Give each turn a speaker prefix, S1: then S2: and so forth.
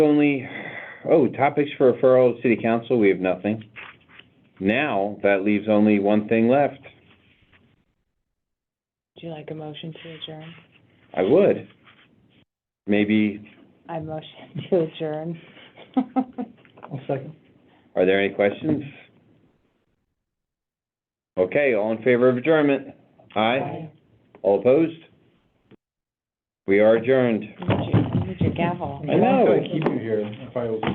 S1: only, oh, topics for referral to city council, we have nothing. Now, that leaves only one thing left.
S2: Would you like a motion to adjourn?
S1: I would. Maybe,
S2: I motion to adjourn.
S3: I'll second.
S1: are there any questions? Okay, all in favor of adjournment? Aye. All opposed? We are adjourned.
S2: You need your- you need your gavel.
S1: I know.
S3: Keep you here if I was.